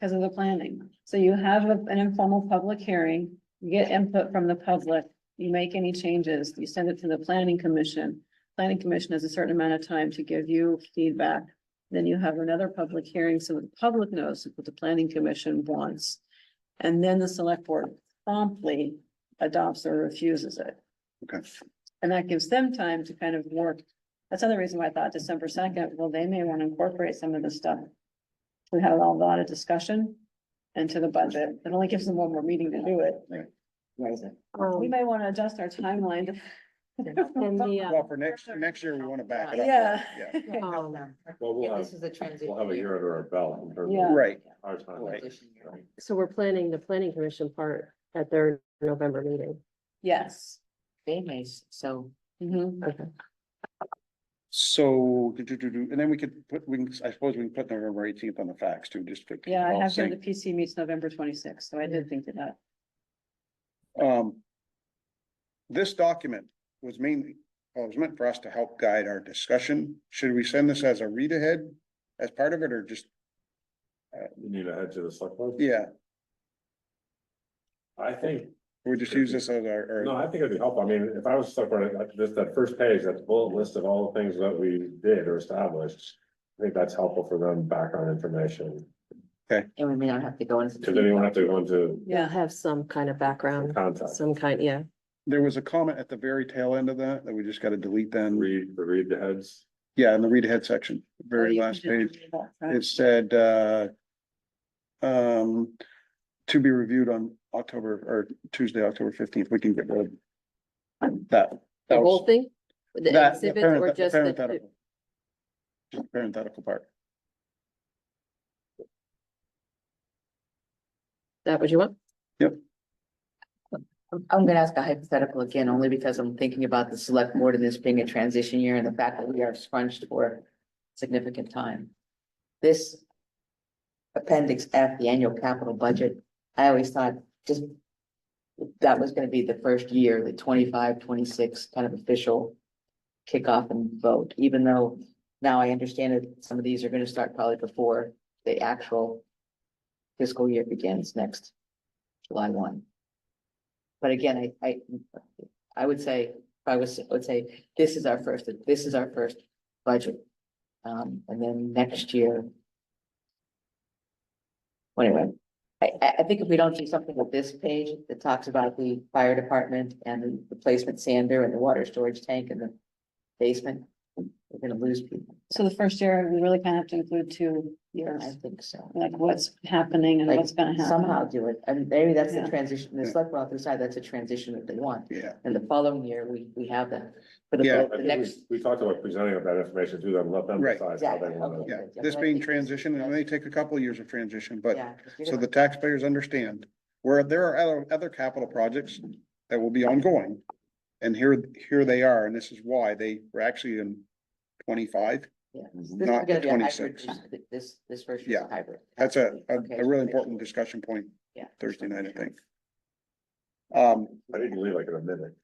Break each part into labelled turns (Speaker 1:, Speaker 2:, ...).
Speaker 1: because of the planning. So you have a- an informal public hearing, you get input from the public, you make any changes, you send it to the planning commission. Planning commission has a certain amount of time to give you feedback. Then you have another public hearing, so the public knows what the planning commission wants. And then the select board promptly adopts or refuses it.
Speaker 2: Okay.
Speaker 1: And that gives them time to kind of work. That's another reason why I thought December second, well, they may want to incorporate some of this stuff. We had a lot of discussion into the budget. It only gives them one more meeting to do it. We
Speaker 3: Um,
Speaker 1: may want to adjust our timeline.
Speaker 3: And the, uh,
Speaker 2: Well, for next, next year, we want to back it up.
Speaker 1: Yeah.
Speaker 3: um,
Speaker 4: Well, we'll
Speaker 5: And
Speaker 4: have,
Speaker 5: this is a transition.
Speaker 4: we'll have a year under our belt in terms
Speaker 1: Yeah.
Speaker 4: of
Speaker 2: Right,
Speaker 4: our time.
Speaker 2: Right.
Speaker 5: Transition year.
Speaker 4: Right.
Speaker 3: so we're planning the planning commission part at their November meeting.
Speaker 1: Yes.
Speaker 5: They may, s- so
Speaker 1: Mhm.
Speaker 3: Okay.
Speaker 2: so, do, do, do, do, and then we could put, we can, I suppose we can put November eighteenth on the facts too, just. to keep
Speaker 1: Yeah,
Speaker 2: it
Speaker 1: I
Speaker 2: all
Speaker 1: have here the
Speaker 2: synced.
Speaker 1: PC meets November twenty-sixth, so I did think of that.
Speaker 2: Um. This document was mainly, well, it was meant for us to help guide our discussion. Should we send this as a read ahead as part of it or just,
Speaker 4: You need to head to the select board?
Speaker 2: yeah,
Speaker 4: I think,
Speaker 2: we just use this as our,
Speaker 4: no,
Speaker 2: our,
Speaker 4: I think it'd be helpful. I mean, if I was select board, like this, that first page, that bullet list of all the things that we did or established. I think that's helpful for them background information.
Speaker 5: and we may not have to go into.
Speaker 4: Cause then you won't have to go into
Speaker 3: They'll have some kind of background,
Speaker 4: contact,
Speaker 3: some kind, yeah.
Speaker 2: there was a comment at the very tail end of that, that we just gotta delete then.
Speaker 4: read, the read the heads.
Speaker 2: Yeah, in the read ahead section, very last page. It said, uh. Um, to be reviewed on October or Tuesday, October fifteenth, we can get rid of that.
Speaker 3: The
Speaker 2: that
Speaker 3: whole
Speaker 2: was-
Speaker 3: thing? The
Speaker 2: that- the
Speaker 3: exhibits
Speaker 2: parent-
Speaker 3: or
Speaker 2: the
Speaker 3: just the,
Speaker 2: parenthetical. Just the Parenthetical part.
Speaker 3: that what you want?
Speaker 5: I'm- I'm gonna ask a hypothetical again, only because I'm thinking about the select board and this being a transition year and the fact that we are scrunched for significant time. This appendix F, the annual capital budget, I always thought just that was gonna be the first year, the 25, 26 kind of official kickoff and vote, even though now I understand that some of these are gonna start probably before the actual fiscal year begins next July one. But again, I, I, I would say, if I was, would say, this is our first, this is our first budget. Um, and then next year. Well, Anyway, I, I, I think if we don't do something with this page that talks about the fire department and the replacement sander and the water storage tank and the basement, we're gonna lose people.
Speaker 1: So the first year, we really kind of have to include two
Speaker 5: I
Speaker 1: years,
Speaker 5: think so.
Speaker 1: like what's happening and
Speaker 5: Like,
Speaker 1: what's gonna happen.
Speaker 5: Somehow do it, and maybe that's the
Speaker 1: Uh-huh. Yeah.
Speaker 5: transition, the
Speaker 2: Yeah.
Speaker 5: select board decide that's a transition that they want.
Speaker 2: Yeah,
Speaker 5: And the following year, we, we have that. For the,
Speaker 2: Yeah.
Speaker 5: vote,
Speaker 4: I
Speaker 5: the
Speaker 4: think we,
Speaker 5: next.
Speaker 4: we talked about presenting that information to them, let them
Speaker 2: Right.
Speaker 4: decide how they
Speaker 5: Exactly,
Speaker 4: wanna.
Speaker 5: okay.
Speaker 2: yeah.
Speaker 5: Yeah,
Speaker 2: This
Speaker 5: but I
Speaker 2: being
Speaker 5: think-
Speaker 2: transition, it may take a couple of years of transition, but
Speaker 5: yeah, 'cause we
Speaker 2: so
Speaker 5: don't-
Speaker 2: the taxpayers understand where there are other, other capital projects that will be ongoing. And here, here they are, and this is why they were actually in twenty-five.
Speaker 5: yeah. This is
Speaker 2: Mhm. not the
Speaker 5: gonna be a hybrid
Speaker 2: 26.
Speaker 5: versus- This, this version is
Speaker 2: Yeah.
Speaker 5: a hybrid.
Speaker 2: That's a, a,
Speaker 5: Okay.
Speaker 2: a really important discussion point
Speaker 5: Yeah.
Speaker 2: Thursday night, I think. Um,
Speaker 4: I didn't leave like in a minute.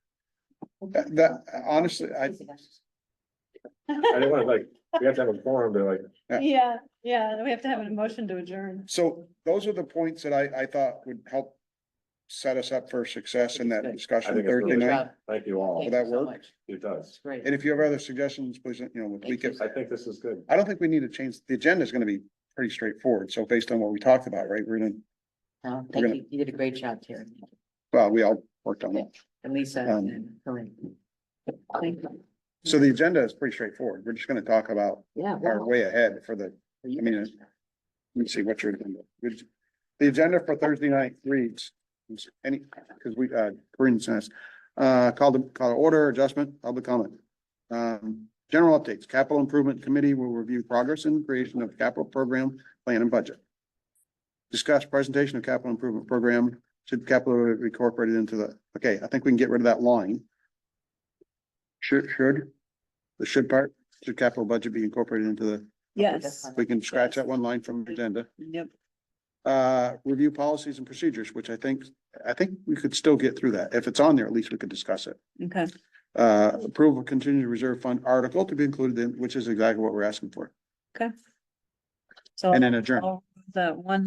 Speaker 2: that, that- honestly, I,
Speaker 4: I didn't wanna like, we have to have a forum, they're like,
Speaker 1: Yeah, yeah, we have to have a motion to adjourn.
Speaker 2: so those are the points that I, I thought would help set us up for success in that
Speaker 4: I
Speaker 2: discussion
Speaker 4: think it's
Speaker 2: Thursday
Speaker 4: really-
Speaker 2: night.
Speaker 4: thank you all.
Speaker 5: Thank
Speaker 2: that
Speaker 5: you so
Speaker 2: work?
Speaker 5: much.
Speaker 4: It does.
Speaker 5: It's great.
Speaker 2: And if you have other suggestions, please, you know, we
Speaker 5: Thank you.
Speaker 2: can,
Speaker 4: I think this is good.
Speaker 2: I don't think we need to change, the agenda is gonna be pretty straightforward. So based on what we talked about, right, we're gonna,
Speaker 5: No,
Speaker 2: we're
Speaker 5: Thank
Speaker 2: gonna-
Speaker 5: you. You did a great job, Terry. uh,
Speaker 2: well, we all worked on it.
Speaker 5: And Lisa
Speaker 2: Um,
Speaker 5: and Corinne. Thank you.
Speaker 2: So the agenda is pretty straightforward. We're just gonna talk about
Speaker 3: Yeah.
Speaker 2: our way ahead for the I mean, it's- Let me see what your agenda. which- The agenda for Thursday night reads, any, because we, uh, Corinne says, uh, call the, call to order, adjustment, public comment. Um, general updates, capital improvement committee will review progress in creation of capital program, plan and budget. Discuss presentation of capital improvement program, should capital be incorporated into the, okay, I think we can get rid of that line. Should, should, the should part, should capital budget be incorporated into the
Speaker 1: Yes,
Speaker 2: we can scratch that one line from the agenda.
Speaker 1: yep.
Speaker 2: Uh, review policies and procedures, which I think, I think we could still get through that. If it's on there, at least we could discuss it.
Speaker 1: Okay,
Speaker 2: Uh, approval of contingent reserve fund article to be included in, which is exactly what we're asking for,
Speaker 1: okay. So
Speaker 2: and then adjourn.
Speaker 1: I'll- the one